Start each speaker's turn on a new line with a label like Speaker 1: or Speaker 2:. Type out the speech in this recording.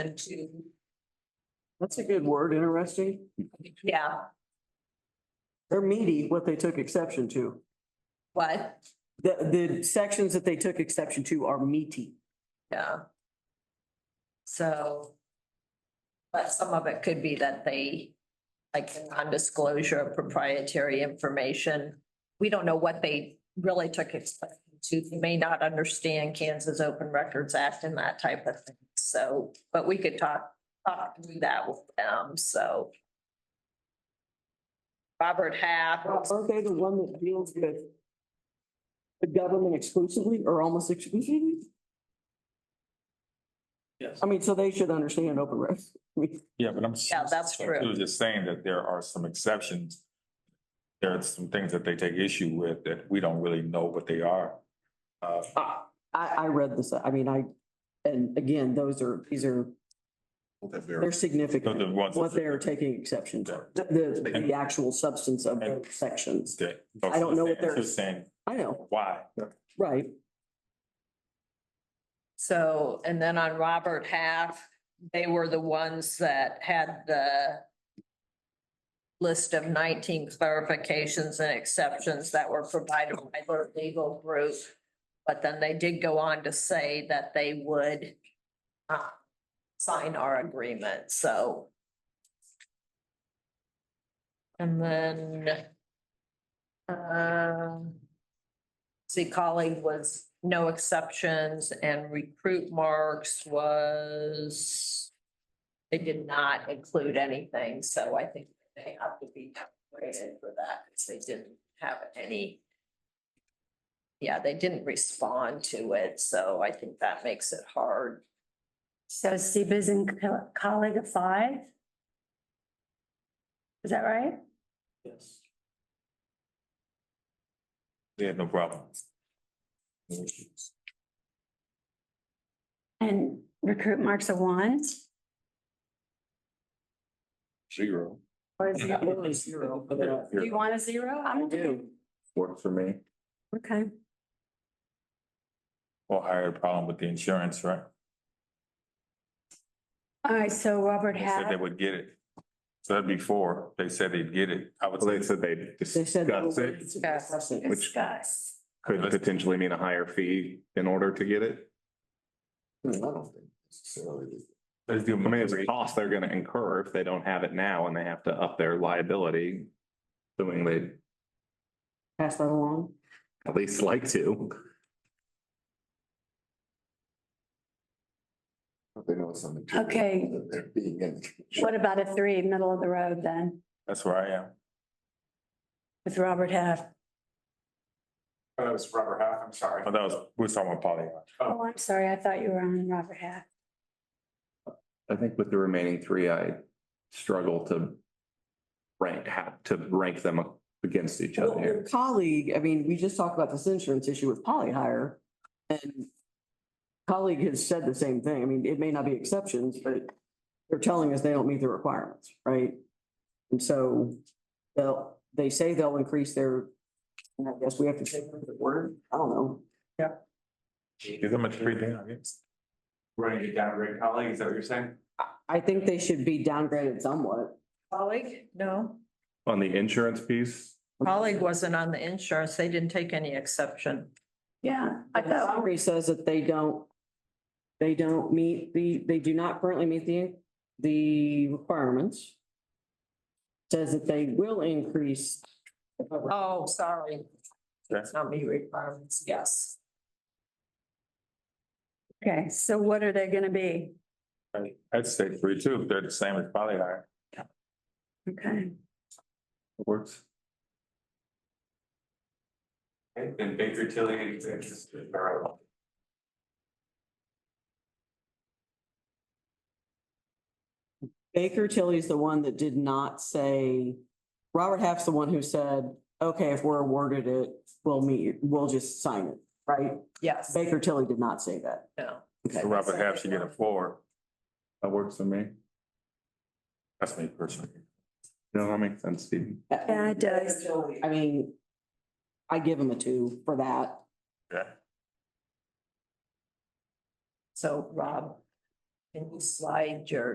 Speaker 1: and to,
Speaker 2: That's a good word, interesting.
Speaker 1: yeah,
Speaker 2: They're meaty, what they took exception to.
Speaker 1: what?
Speaker 2: The, the sections that they took exception to are meaty.
Speaker 1: Yeah. So. But some of it could be that they, like the non-disclosure of proprietary information. We don't know what they really took exception to. They may not understand Kansas Open Records Act and that type of thing. So, but we could talk, talk through that with them, so. Robert Half,
Speaker 2: Aren't they the one that deals with the government exclusively or almost exclusively?
Speaker 3: Yes.
Speaker 2: I mean, so they should understand open recs.
Speaker 4: Yeah, but I'm.
Speaker 1: Yeah, that's
Speaker 4: so
Speaker 1: true.
Speaker 4: She was just saying that there are some exceptions. There are some things that they take issue with that we don't really know what they are. Uh,
Speaker 2: I, I read this, I mean, I, and again, those are, these are, they're
Speaker 4: so the
Speaker 2: significant,
Speaker 4: ones.
Speaker 2: what they're taking exception to, the, the, the actual substance of those sections.
Speaker 4: that-
Speaker 2: I don't know what they're-
Speaker 4: Just saying
Speaker 2: I know,
Speaker 4: why.
Speaker 2: right.
Speaker 1: So, and then on Robert Half, they were the ones that had the list of nineteen clarifications and exceptions that were provided by their legal group. But then they did go on to say that they would uh, sign our agreement, so. And then um See colleague was no exceptions and recruit marks was. They did not include anything, so I think they have to be rated for that because they didn't have any. Yeah, they didn't respond to it, so I think that makes it hard.
Speaker 5: So Steve is in co- colleague of five? Is that right?
Speaker 3: Yes.
Speaker 4: They had no problem.
Speaker 5: And recruit marks a one
Speaker 4: Zero.
Speaker 5: or is it?
Speaker 2: Literally zero, but, uh,
Speaker 5: Do you want a zero? I'm okay.
Speaker 4: Worked for me.
Speaker 5: Okay.
Speaker 4: Or I had a problem with the insurance, right?
Speaker 5: All right, so Robert
Speaker 4: They said
Speaker 5: had,
Speaker 4: they would get it. So that'd be four. They said they'd get it. I would say. They said they.
Speaker 2: They said.
Speaker 6: Got it.
Speaker 2: Discuss.
Speaker 5: discuss.
Speaker 6: Could potentially mean a higher fee in order to get it.
Speaker 4: Let's do.
Speaker 6: I mean, it's a cost they're gonna incur if they don't have it now and they have to up their liability. Assuming they would
Speaker 2: Pass that along.
Speaker 6: at least like to.
Speaker 7: They know it's something.
Speaker 5: Okay.
Speaker 7: They're being in.
Speaker 5: What about a three, middle of the road then,
Speaker 4: That's where I am.
Speaker 5: with Robert Half?
Speaker 4: Oh, that was Robert Half, I'm sorry. Oh, that was, we were talking about Polly.
Speaker 5: Oh, I'm sorry, I thought you were on Robert Half.
Speaker 6: I think with the remaining three, I struggle to rank, have to rank them against each other
Speaker 2: Well, your
Speaker 6: here.
Speaker 2: colleague, I mean, we just talked about this insurance issue with poly hire. And colleague has said the same thing. I mean, it may not be exceptions, but they're telling us they don't meet the requirements, right? And so they'll, they say they'll increase their, and I guess we have to take them at their word. I don't know.
Speaker 4: Give them a three thing, I guess.
Speaker 3: Running it down, Rick, colleague, is that what you're saying?
Speaker 2: I, I think they should be downgraded somewhat.
Speaker 1: Colleague, no,
Speaker 6: On the insurance piece,
Speaker 1: colleague wasn't on the insurance. They didn't take any exception.
Speaker 5: Yeah, I
Speaker 2: But the
Speaker 5: thought,
Speaker 2: summary says that they don't, they don't meet the, they do not currently meet the, the requirements. Says that they will increase.
Speaker 1: Oh, sorry.
Speaker 4: Okay.
Speaker 1: It's not me requirements, yes.
Speaker 5: okay, so what are they gonna be?
Speaker 4: Right. I'd say three too, if they're the same as Polly hire.
Speaker 5: Okay,
Speaker 6: it works.
Speaker 3: Okay, Then Baker Tilly and Texas. Borough.
Speaker 2: Baker Tilly's the one that did not say, Robert Half's the one who said, okay, if we're awarded it, we'll meet, we'll just sign it, right?
Speaker 1: Yes,
Speaker 2: Baker Tilly did not say that.
Speaker 1: no.
Speaker 4: So Robert Half should get a four.
Speaker 6: That works for me.
Speaker 4: That's me personally.
Speaker 6: No, that makes sense, Steve.
Speaker 5: Yeah, it does.
Speaker 2: I mean, I give him a two for that.
Speaker 4: Yeah.
Speaker 1: So Rob, Can you slide your